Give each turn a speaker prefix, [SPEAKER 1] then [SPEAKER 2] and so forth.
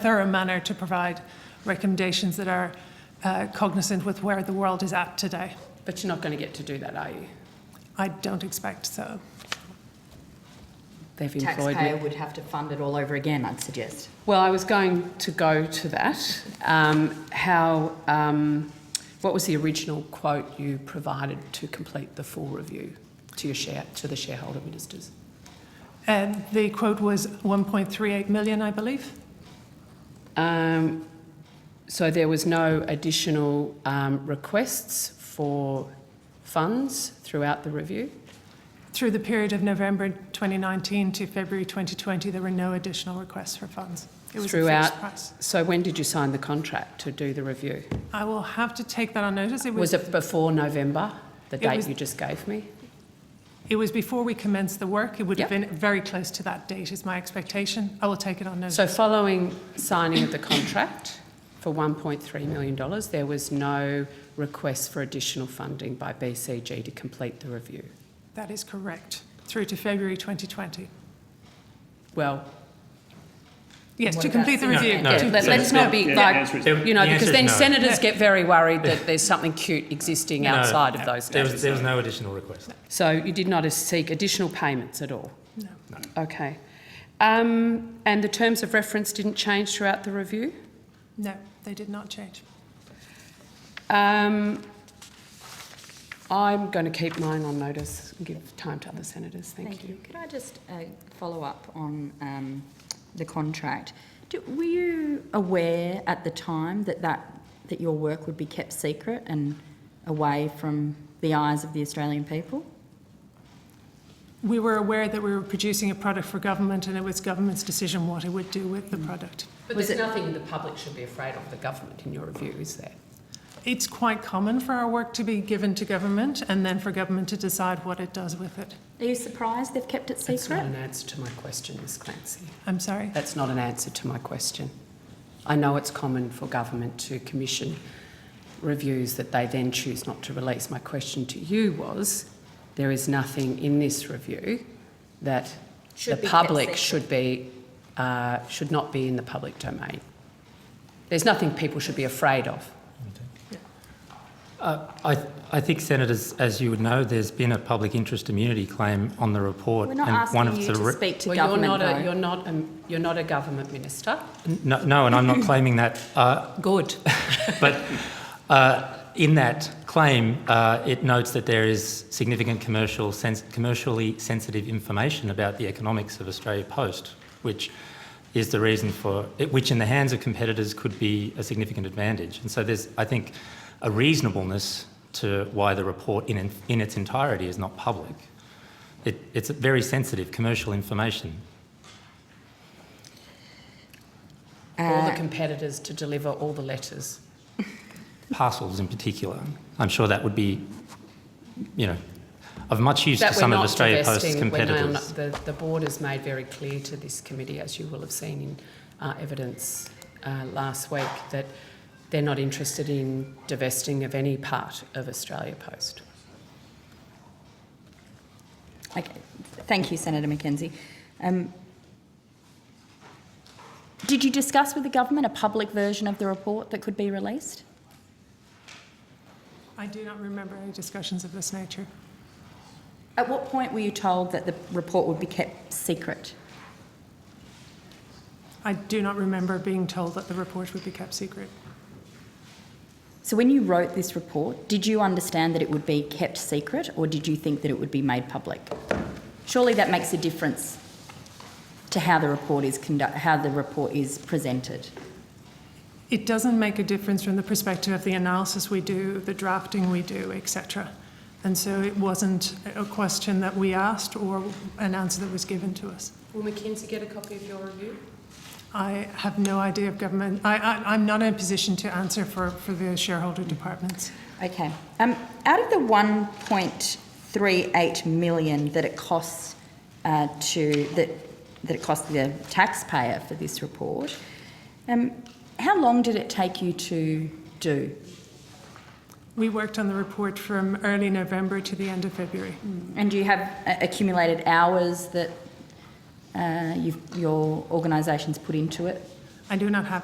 [SPEAKER 1] thorough manner to provide recommendations that are uh, cognizant with where the world is at today.
[SPEAKER 2] But you're not going to get to do that, are you?
[SPEAKER 1] I don't expect so.
[SPEAKER 2] They've employed
[SPEAKER 3] taxpayer
[SPEAKER 2] me.
[SPEAKER 3] would have to fund it all over again, I'd suggest.
[SPEAKER 2] Well, I was going to go to that. Um, how, um, what was the original quote you provided to complete the full review to your share, to the shareholder ministers?
[SPEAKER 1] Um, the quote was 1.38 million, I believe.
[SPEAKER 2] Um, so there was no additional um, requests for funds throughout the review.
[SPEAKER 1] Through the period of November 2019 to February 2020, there were no additional requests for funds. It was a
[SPEAKER 2] Throughout-
[SPEAKER 1] fixed price.
[SPEAKER 2] So when did you sign the contract to do the review?
[SPEAKER 1] I will have to take that on notice. It was,
[SPEAKER 2] Was it before November, the
[SPEAKER 1] It
[SPEAKER 2] date
[SPEAKER 1] was-
[SPEAKER 2] you just gave me?
[SPEAKER 1] it was before we commenced the work. It would have been
[SPEAKER 2] Yep.
[SPEAKER 1] very close to that date, is my expectation. I will take it on notice.
[SPEAKER 2] So following signing of the contract for $1.3 million, there was no request for additional funding by BCG to complete the review.
[SPEAKER 1] that is correct. Through to February 2020.
[SPEAKER 2] Well,
[SPEAKER 1] Yes,
[SPEAKER 3] What
[SPEAKER 1] to
[SPEAKER 3] about-
[SPEAKER 1] complete the
[SPEAKER 4] No,
[SPEAKER 1] review.
[SPEAKER 4] no,
[SPEAKER 1] To-
[SPEAKER 2] yeah, let,
[SPEAKER 4] so
[SPEAKER 2] us not be
[SPEAKER 4] the- the
[SPEAKER 2] like,
[SPEAKER 4] answer is-
[SPEAKER 2] you know,
[SPEAKER 4] the answer
[SPEAKER 2] because
[SPEAKER 4] is
[SPEAKER 2] then
[SPEAKER 4] no.
[SPEAKER 2] senators get very worried that there's something cute existing
[SPEAKER 4] No,
[SPEAKER 2] outside of those
[SPEAKER 4] There
[SPEAKER 2] days.
[SPEAKER 4] was, there was no additional request.
[SPEAKER 2] So you did not seek additional payments at all?
[SPEAKER 1] No.
[SPEAKER 2] Okay. Um, and the terms of reference didn't change throughout the review?
[SPEAKER 1] No, they did not change.
[SPEAKER 2] Um, I'm going to keep mine on notice and give time to other senators. Thank, you.
[SPEAKER 3] Could I just uh, follow up on um, the contract? Do, were you aware at the time that, that that your work would be kept secret and away from the eyes of the Australian people?
[SPEAKER 1] We were aware that we were producing a product for government and it was government's decision what it would do with the product.
[SPEAKER 2] But
[SPEAKER 3] Was
[SPEAKER 2] there's
[SPEAKER 3] it-
[SPEAKER 2] nothing the public should be afraid of the government in your review, is there?
[SPEAKER 1] It's quite common for our work to be given to government and then for government to decide what it does with it.
[SPEAKER 3] Are you surprised they've kept it
[SPEAKER 2] That's not
[SPEAKER 3] secret?
[SPEAKER 2] an answer to my question, Ms Clancy.
[SPEAKER 1] I'm sorry.
[SPEAKER 2] That's not an answer to my question. I know it's common for government to commission reviews that they then choose not to release. My question to you was there is nothing in this review that
[SPEAKER 3] Should be
[SPEAKER 2] the
[SPEAKER 3] kept
[SPEAKER 2] public
[SPEAKER 3] secret.
[SPEAKER 2] should be uh, should not be in the public domain. There's nothing people should be afraid of.
[SPEAKER 4] Uh, I, I think, Senators, as you would know, there's been a public interest immunity claim on the report.
[SPEAKER 3] We're not
[SPEAKER 4] and
[SPEAKER 3] asking
[SPEAKER 4] one of
[SPEAKER 3] you
[SPEAKER 4] the
[SPEAKER 3] to
[SPEAKER 4] re-
[SPEAKER 3] speak to
[SPEAKER 2] well,
[SPEAKER 3] government.
[SPEAKER 2] you're not
[SPEAKER 3] though.
[SPEAKER 2] a you're not a, you're not a government minister.
[SPEAKER 4] No, no, and I'm not claiming that. Uh,
[SPEAKER 2] Good.
[SPEAKER 4] but uh, in that claim, uh, it notes that there is significant commercial sens- commercially sensitive information about the economics of Australia Post, which is the reason for which, in the hands of competitors, could be a significant advantage. And so there's, I think, a reasonableness to why the report in, in its entirety is not public. It, it's very sensitive commercial information.
[SPEAKER 3] Uh,
[SPEAKER 2] all the competitors to deliver all the letters.
[SPEAKER 4] parcels in particular. I'm sure that would be, you know, of much use
[SPEAKER 2] that
[SPEAKER 4] to
[SPEAKER 2] we're
[SPEAKER 4] some of
[SPEAKER 2] not
[SPEAKER 4] Australia Post's
[SPEAKER 2] divesting, we're now
[SPEAKER 4] competitors.
[SPEAKER 2] not- The, the board has made very clear to this committee, as you will have seen in uh, evidence uh, last week, that they're not interested in divesting of any part of Australia Post.
[SPEAKER 3] Uh, Okay, thank you, Senator McKenzie. Um, did you discuss with the government a public version of the report that could be released?
[SPEAKER 1] I do not remember any discussions of this nature.
[SPEAKER 3] At what point were you told that the report would be kept secret?
[SPEAKER 1] I do not remember being told that the report would be kept secret.
[SPEAKER 3] So, when you wrote this report, did you understand that it would be kept secret or did you think that it would be made public? Surely that makes a difference to how the report is conduct- how the report is presented.
[SPEAKER 1] It doesn't make a difference from the perspective of the analysis we do, the drafting we do, etc. And so it wasn't a question that we asked or an answer that was given to us.
[SPEAKER 2] Will McKinsey get a copy of your review?
[SPEAKER 1] I have no idea of government. I, I, I'm not in a position to answer for, for the shareholder departments.
[SPEAKER 3] Okay. Um, out of the 1.38 million that it costs uh, to that that it cost the taxpayer for this report, um, how long did it take you to do?
[SPEAKER 1] We worked on the report from early November to the end of February.
[SPEAKER 3] And do you have uh, accumulated hours that uh, you've, your organisation's put into it?
[SPEAKER 1] I do not have